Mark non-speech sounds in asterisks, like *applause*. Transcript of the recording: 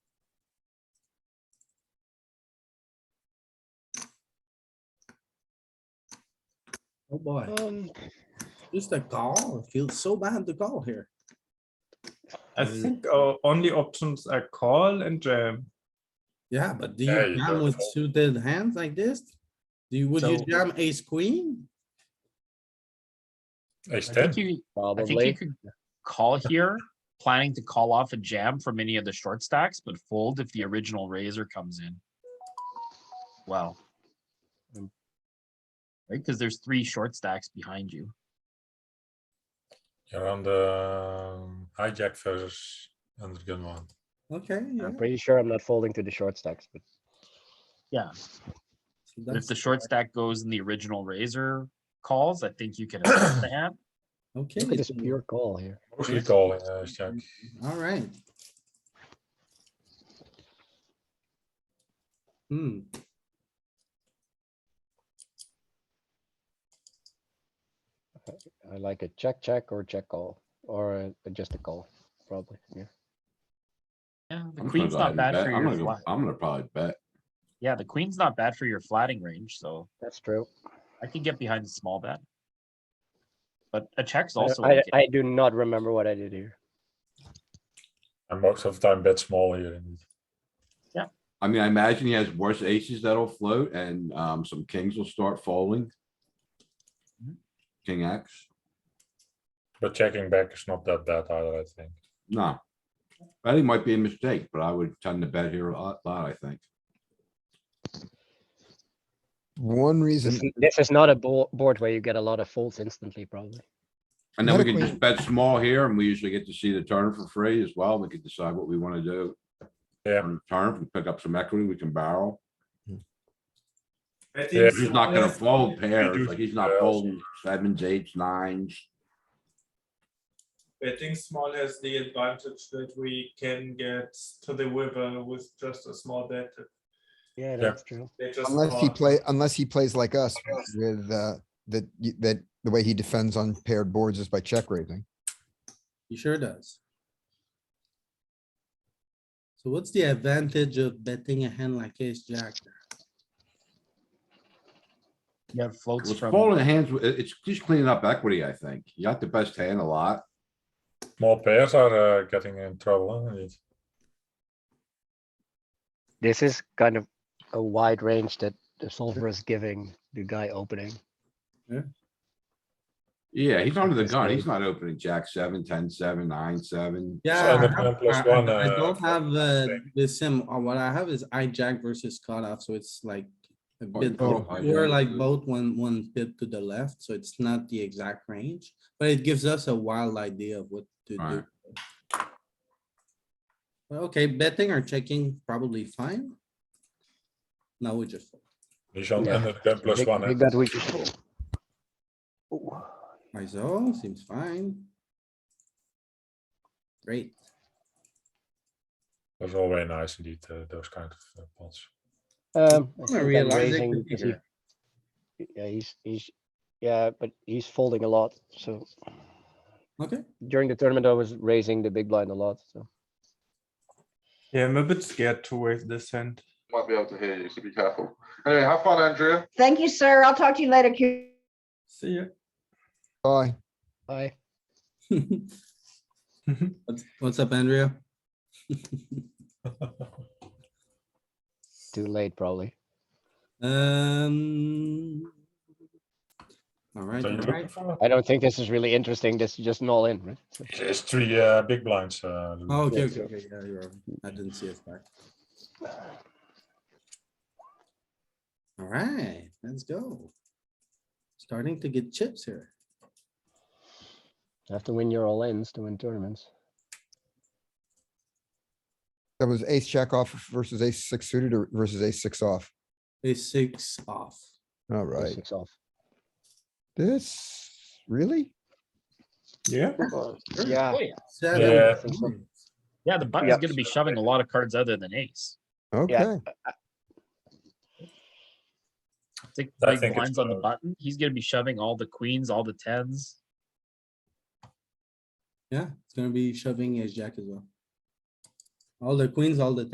Oh, boy. Um, Just a call. It feels so bad to call here. I Mm. think our only options are call and jam. Yeah, but do Yeah, you you jam don't with know. suited hands like this? Do you, would you So- jam ace queen? Ace I think you, ten, I think you Probably. could call here, planning to call off a jam from any of the short stacks, but fold if the original razor comes in. Wow. Right, because there's three short stacks behind you. you're on the um, hijack versus under gun one. Okay, yeah. I'm pretty sure I'm not folding to the short stacks, but so But if that's- the short stack goes in the original razor calls, I think you can attack the hand. Okay, look at this so- pure call here. Mostly calling uh, ace jack. all right. Hmm, I like a check, check or check call, or a- a- just a call, probably, yeah. Yeah, the I'm gonna queen's go not ahead and bad bet. for I'm your gonna go- flat. I'm gonna probably bet. Yeah, the queen's not bad for your flatting range, so That's true. I can get behind the small bet. But a check's I- also. I, okay. I do not remember what I did here. And most of the time bet small here. indeed. I mean, I imagine he has worse aces that'll float and, um, some kings will start folding. Mhm. King X, But checking back is not that bad either, I think. no. I think it might be a mistake, but I would tend to bet here a lot, lot, I think. One This reason, is- this is not a bo- board where you get a lot of folds instantly, probably. And then we Not a can queen. just bet small here and we usually get to see the turn for free as well. We could decide what we wanna do. Yeah. on the Turn, if we pick up some equity, we can barrel. I Yeah, He's not gonna fold pairs, do like he's not barrels. folding sevens, eights, nines. Betting small has the advantage that we can get to the river with just a small bet. Yeah, that's true. They just unless he play, unless he plays like us with, uh, that, y- that the way he defends on paired boards is by check raising. he sure does. So what's the advantage of betting a hand like ace jack? You have floats With from, folding hands, it- it's just cleaning up equity, I think. You got the best hand a lot. Small pairs are uh, getting in trouble, huh, indeed. This is kind of a wide range that the solver is giving the guy opening. Yeah, he's under the Yes, gun. maybe. He's not opening jack seven, ten, seven, nine, seven. Yeah. So I the have- plan plus I- one, I I uh, don't have uh, thing. the sim, uh, what I have is hijack versus cutoff, so it's like a Oh, bit, oh, we're hijack. like both one, one bit to the left, so it's not the exact range, but it gives us a wild idea of what to do. Alright. Okay, betting or checking, probably fine. Now we just, fold. He's on Yeah. under the gun plus Big- one. big eh? bet we just fold. Ooh, ISO seems fine. Great, That's always nice indeed, uh, those kind of uh, pots. Um. I I think I'm realized it raising could be because he- here. Yeah, he's, he's, yeah, but he's folding a lot, so. okay, during the tournament, I was raising the big blind a lot, so. Yeah, I'm a bit scared to raise this hand. Might be able to hear you, so be careful. Anyway, have fun, Andrea. Thank you, sir. I'll talk to you later, Q. See ya. Bye. I, *laughs* what's, what's up, Andrea? too late probably. Um. Alright, So you're looking alright, for- I don't think this is really interesting. This is just an all in, right? So- It's three uh, big blinds. Uh, Louis. oh, okay, Yeah, okay, so- okay, yeah, you're, right. I didn't see it back. Alright, let's go. Starting to get chips here. You have to win your all ins to win tournaments. That was ace check off versus ace six suited or versus ace six off. A six off. All or right, Six off. this, really? Yeah. Or- Yeah, Seven Yeah. points. Oh, yeah, the button's Yeah. gonna be shoving a lot of cards other than ace. Okay, I think I big think it's blinds on the close. button, he's gonna be shoving all the queens, all the tens. Yeah, it's gonna be shoving ace jack as well. All the queens, all the